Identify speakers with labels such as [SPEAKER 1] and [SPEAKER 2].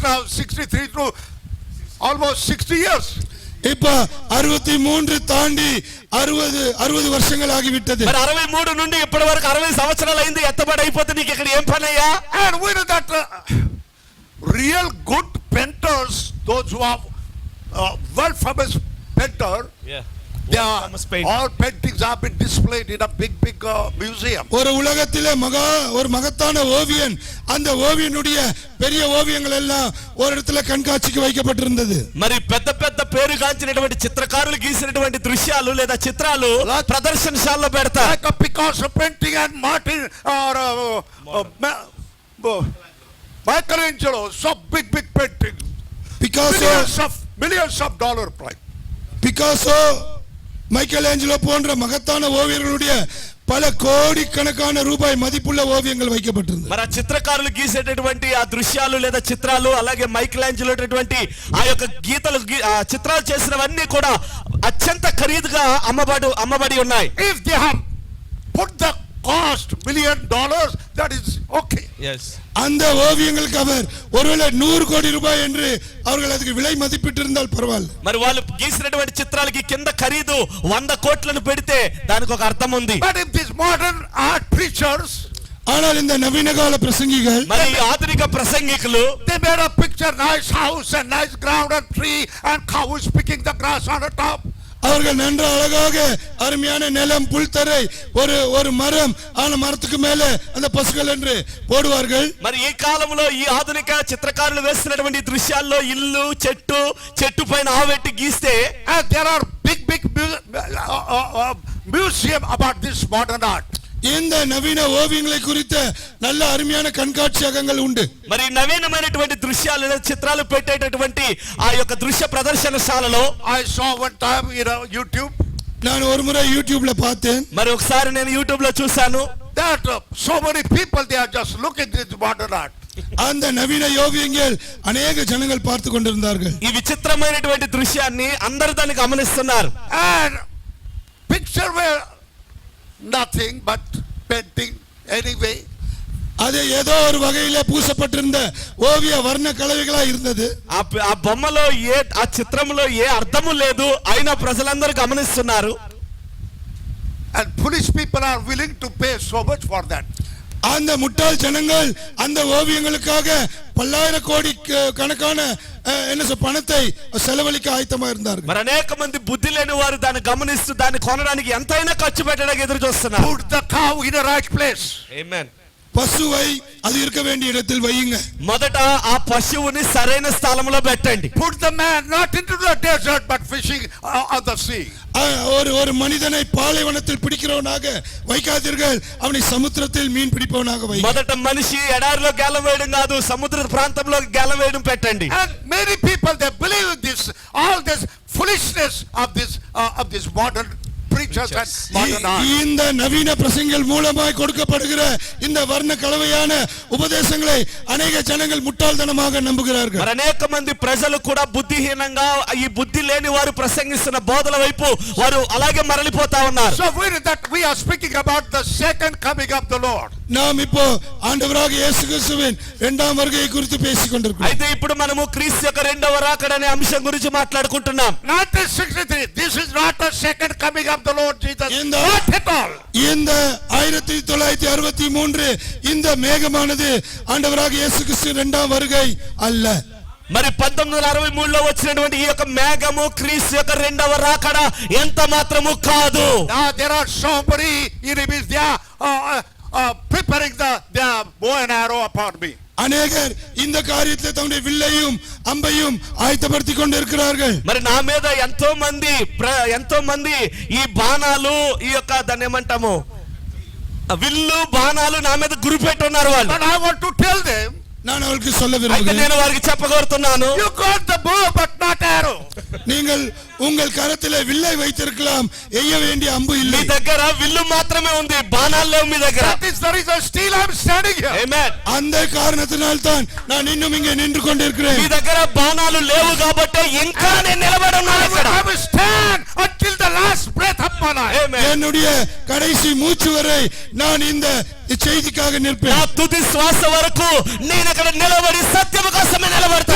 [SPEAKER 1] now 63 to almost 60 years.
[SPEAKER 2] இப்ப அறுபத்தி மூன்று தாண்டி அறுபது அறுபது வருஷங்கள் ஆகிவிட்டது
[SPEAKER 3] మరి అరవై మూడు నుండి ఇప్పటి వరకు అరవై సంవత్సరాలు అయింది ఎత్తబడి అయిపోతే నీకు ఇక్కడ ఏం పని అయ్యా
[SPEAKER 1] And we know that uh, real good painters, those who are uh, world famous painter, they are,
[SPEAKER 3] famous painter.
[SPEAKER 1] all paintings have been displayed in a big, big uh, museum.
[SPEAKER 2] ஒரு உலகத்திலே மகா ஒரு மகத்தான ஓவியன் அந்த ஓவியனுடைய பெரிய ஓவியங்கள் எல்லாம் ஒரு இடத்துல கண்காட்சிக்கு வைக்கப்பட்டிருந்தது
[SPEAKER 3] మరి పెద్ద పెద్ద పేరు కాంచినటువంటి చిత్రకారులు గీసినటువంటి దృశ్యాలు లేదా చిత్రాలు ప్రదర్శనశాలలో పెడతా
[SPEAKER 1] Like a Picasso painting and Martin or uh, uh, Ma- uh, Michelangelo, so big, big painting.
[SPEAKER 2] Picasso
[SPEAKER 1] Millions of, millions of dollar price.
[SPEAKER 2] Picasso Michelangelo போன்ற மகத்தான ஓவியர்களுடைய பல கோடிக்கணக்கான ரூபாய் மதிப்புள்ள ஓவியங்கள் வைக்கப்பட்டிருந்தது
[SPEAKER 3] మరి ఆ చిత్రకారులు గీసేటటువంటి ఆ దృశ్యాలు లేదా చిత్రాలు అలాగే మైకిల్ ఆంజలోటటువంటి ఆ యొక్క గీతలు గీ- ఆ చిత్రాలు చేసినవన్నీ కూడా అత్యంత ఖరీదుగా అమ్మబడు అమ్మబడి ఉన్నాయి
[SPEAKER 1] If they have put the cost million dollars, that is okay.
[SPEAKER 2] அந்த ஓவியங்களுக்கு அவர் ஒருவேளை நூறு கோடி ரூபாய் என்று அவர்கள் அதுக்கு விலை மதிப்பிட்டிருந்தால் பரவாயில்லை
[SPEAKER 3] మరి వాళ్ళు గీసినటువంటి చిత్రాలకి కింద ఖరీదు వంద కోట్లను పెడితే దానికి ఒక అర్థం ఉంది
[SPEAKER 1] But if these modern art preachers,
[SPEAKER 2] ஆனால் இந்த நவீன கால பிரசங்கிகள்
[SPEAKER 3] మరి ఈ ఆధునిక ప్రసంగికులు
[SPEAKER 1] they made a picture, nice house and nice ground and tree and cow is picking the grass on the top.
[SPEAKER 2] அவர்கள் நன்று அழகாக அருமையான நிலம் புல்தரை ஒரு ஒரு மரம் ஆன மரத்துக்கு மேலே அந்த பசுகள் என்று போடுவார்கள்
[SPEAKER 3] మరి ఈ కాలంలో ఈ ఆధునిక చిత్రకారులు వేస్తున్నటువంటి దృశ్యాల్లో ఇల్లు చెట్టు చెట్టు పైన ఆవెట్టి గీస్తే
[SPEAKER 1] And there are big, big mu- uh, uh, uh, museum about this modern art.
[SPEAKER 2] இந்த நவீன ஓவியங்களை குறித்த நல்ல அருமையான கண்காட்சியகங்கள் உண்டு
[SPEAKER 3] మరి నవీనమైనటువంటి దృశ్యాలు లేదా చిత్రాలు పెట్టేటటువంటి ఆ యొక్క దృశ్య ప్రదర్శనశాలలో
[SPEAKER 1] I saw one time in uh, YouTube
[SPEAKER 2] நான் ஒரு ముறை யூடியூப்ல பார்த்தேன்
[SPEAKER 3] మరి ఒకసారి నేను యూట్యూబ్ లో చూశాను
[SPEAKER 1] that uh, so many people, they are just looking at this modern art.
[SPEAKER 2] அந்த நவீன ஓவியங்கள் அநேக ஜனங்கள் பார்த்து கொண்டிருந்தார்கள்
[SPEAKER 3] ఈ విచిత్రమైనటువంటి దృశ్యాన్ని అందరూ దాన్ని గమనిస్తున్నారు
[SPEAKER 1] And picture were nothing but painting anyway.
[SPEAKER 2] அது ஏதோ ஒரு வகையில பூசப்பட்டிருந்த ஓவிய வர்ண கலவைகளா இருந்தது
[SPEAKER 3] ఆ ప- ఆ బొమ్మలో ఏ ఆ చిత్రంలో ఏ అర్థము లేదు అయినా ప్రజలందరూ గమనిస్తున్నారు
[SPEAKER 1] And foolish people are willing to pay so much for that.
[SPEAKER 2] அந்த முட்டாள் ஜனங்கள் அந்த ஓவியங்களுக்காக பல்லாயிர கோடி க- கணக்கான அஹ், என்ன சொல் பணத்தை செலவழிக்க ஆயத்தமா இருந்தார்கள்
[SPEAKER 3] మరి అనేక మంది బుద్ధి లేని వారు దాన్ని గమనిస్తూ దాన్ని కొనడానికి ఎంతైనా ఖర్చు పెట్టడానికి ఎదురు చూస్తున్నారు
[SPEAKER 1] Put the cow in the right place.
[SPEAKER 2] பசுவை அது இருக்க வேண்டிய இடத்தில் வையுங்க
[SPEAKER 3] మొదట ఆ పశువుని సరైన స్థలంలో పెట్టండి
[SPEAKER 1] Put the man not into the desert but fishing uh, on the sea.
[SPEAKER 2] அஹ், ஒரு ஒரு மனிதனை பாலைவனத்தில் பிடிக்கிறவனாக வைக்காதீர்கள் அவனை சமுத்திரத்தில் மீன் பிடிப்பவனாக வையுங்கள்
[SPEAKER 3] మొదట మనిషి ఎడారిలో గేలం వేయడం కాదు సముద్ర ప్రాంతంలో గేలం వేయడం పెట్టండి
[SPEAKER 1] And many people they believe in this, all this foolishness of this uh, of this modern preachers and modern art.
[SPEAKER 2] இ- இந்த நவீன பிரசங்கள் மூலமாய் கொடுக்கப்படுகிற இந்த வர்ண கலவையான உபதேசங்களை அநேக ஜனங்கள் முட்டாள்தனமாக நம்புகிறார்கள்
[SPEAKER 3] మరి అనేక మంది ప్రజలు కూడా బుద్ధిహీనంగా ఈ బుద్ధి లేని వారు ప్రసంగిస్తున్న బోధల వైపు వారు అలాగే మరలిపోతా ఉన్నారు
[SPEAKER 1] So we that we are speaking about the second coming of the Lord.
[SPEAKER 2] நாம் இப்போ ஆண்டவராக இயேசு கிறிஸ்துவின் இரண்டாம் வருகையை குறித்து பேசிக் கொண்டிருக்கிறோம்
[SPEAKER 3] అయితే ఇప్పుడు మనము క్రీస్తు యొక్క రెండవ రాకడ అనే అంశం గురించి మాట్లాడుకుంటున్నాం
[SPEAKER 1] 1963. This is not the second coming of the Lord Jesus.
[SPEAKER 2] In the-
[SPEAKER 1] Not at all.
[SPEAKER 2] இந்த ஆயிரத்தி தொள்ளாயிரத்தி அறுபத்தி மூன்று இந்த மேகமானது ஆண்டவராக இயேசு கிறிஸ்து இரண்டாம் வருகை அல்ல
[SPEAKER 3] మరి పంతొమ్మిది వందల అరవై మూడులో వచ్చినటువంటి ఈ యొక్క మేఘము క్రీస్తు యొక్క రెండవ రాకడ ఎంత మాత్రము కాదు
[SPEAKER 1] Now Ah, there are so many enemies. They are uh, uh, preparing the their bow and arrow upon me.
[SPEAKER 2] அநேகர் இந்த காரியத்தில் தம்முடைய வில்லையும் அம்பையும் ஆயத்தப்படுத்திக் கொண்டிருக்கிறார்கள்
[SPEAKER 3] మరి నా మీద ఎంతో మంది ప్ర- ఎంతో మంది ఈ బాణాలు ఈ యొక్క దాన్ని ఏమంటాము ఆ విల్లు బాణాలు నా మీద గురిపెట్టి ఉన్నారు వాళ్ళు
[SPEAKER 1] But I want to tell them,
[SPEAKER 2] நான் அவருக்கு சொல்ல
[SPEAKER 3] అయితే
[SPEAKER 2] விரும்புகிறேன்
[SPEAKER 3] నేను వారికి చెప్పగోరుతున్నాను
[SPEAKER 1] you got the bow but not arrow.
[SPEAKER 2] நீங்கள் உங்கள் கரத்திலே வில்லை வைத்திருக்கலாம் எய்ய வேண்டிய அம்பு
[SPEAKER 3] మీ
[SPEAKER 2] இல்லை
[SPEAKER 3] దగ్గర విల్లు మాత్రమే ఉంది బాణాలు లేవు మీ దగ్గర
[SPEAKER 1] That is the reason still I'm standing here.
[SPEAKER 3] Amen.
[SPEAKER 2] அந்த காரணத்தினால்தான் நான் இன்னும் இங்கே நின்று கொண்டிருக்கிறேன்
[SPEAKER 3] మీ దగ్గర బాణాలు లేవు కాబట్టి ఇంకా నేను నిలబడి ఉన్నాను
[SPEAKER 1] I will,
[SPEAKER 3] ఇక్కడ
[SPEAKER 1] I will stand until the last breath of my life.
[SPEAKER 3] Amen.
[SPEAKER 2] என்னுடைய கடைசி மூச்சு வரை நான் இந்த செய்திக்காக
[SPEAKER 3] నా
[SPEAKER 2] நிற்பேன்
[SPEAKER 3] తుది శ్వాస వరకు నేను ఇక్కడ నిలబడి సత్యము కోసమే నిలబడతాను